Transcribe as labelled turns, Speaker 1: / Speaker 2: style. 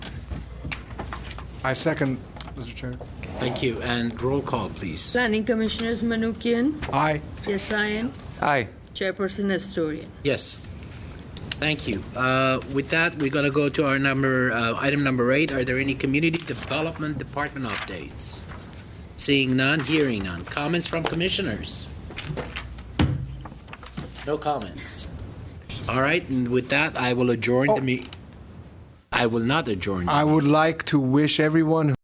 Speaker 1: I second, Mr. Chair.
Speaker 2: Thank you, and roll call, please.
Speaker 3: Planning Commissioners Manukian,
Speaker 1: Aye.
Speaker 3: Yes,
Speaker 4: Aye.
Speaker 3: Chairperson Astorian.
Speaker 2: Yes. Thank you. Uh, With that, we're going to go to our number, uh, item number eight. Are there any community development department updates? Seeing none, hearing none. Comments from commissioners? No comments. All right, and with that, I will adjourn the meeting. I will not adjourn. the
Speaker 1: I would like to wish everyone